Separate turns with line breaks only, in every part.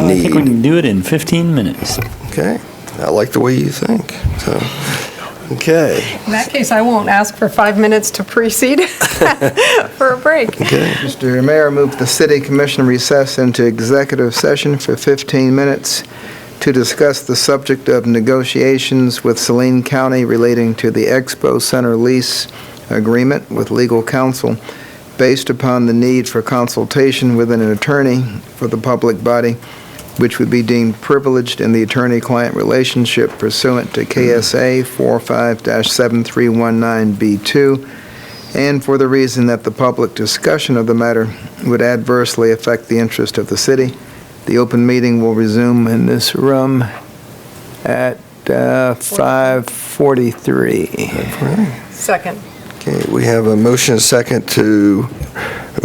I think we
need.
can do it in 15 minutes.
Okay, I like the way you think, so, okay.
In that case, I won't ask for five minutes to precede for a break.
Mr. Mayor, move the city commission recess into executive session for 15 minutes to discuss the subject of negotiations with Saline County relating to the Expo Center lease agreement with legal counsel based upon the need for consultation with an attorney for the public body, which would be deemed privileged in the attorney-client relationship pursuant to KSA 45-7319B2 and for the reason that the public discussion of the matter would adversely affect the interest of the city. The open meeting will resume in this room at uh, 5:43.
Second.
Okay, we have a motion and a second to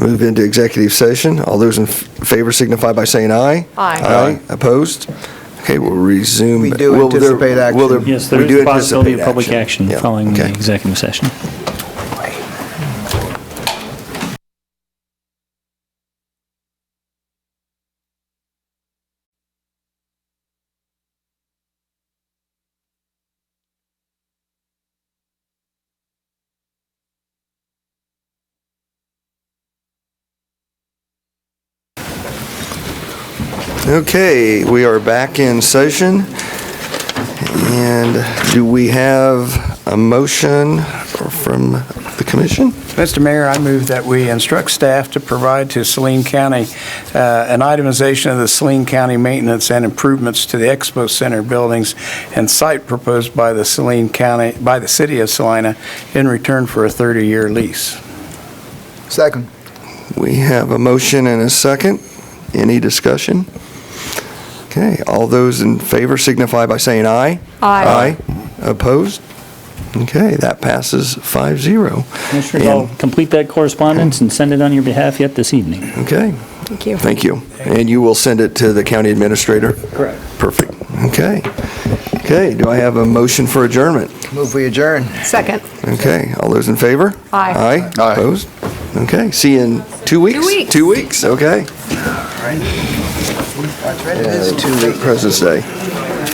move into executive session. All those in f- favor signify by saying aye.
Aye.
Aye, opposed? Okay, we'll resume.
We do
Will there-
anticipate action.
will there-
Yes, there
we
is
do
a possibility of
anticipate
public action
Yeah,
following the
okay.
executive session.
Okay, we are back in session. And do we have a motion from the commission?
Mr. Mayor, I move that we instruct staff to provide to Saline County uh, an itemization of the Saline County maintenance and improvements to the Expo Center buildings and site proposed by the Saline County, by the city of Salina in return for a 30-year lease.
Second.
We have a motion and a second. Any discussion? Okay, all those in favor signify by saying aye.
Aye.
Opposed? Okay, that passes 5-0.
Commissioners, I'll complete that correspondence and send it on your behalf yet this evening.
Okay,
Thank you.
thank you. And you will send it to the county administrator?
Correct.
Perfect. Okay. Okay, do I have a motion for adjournment?
Move we adjourn.
Second.
Okay, all those in favor?
Aye.
Aye, opposed? Okay, see you in two weeks?
weeks.
Two weeks, okay.
It is two weeks.
President's Day.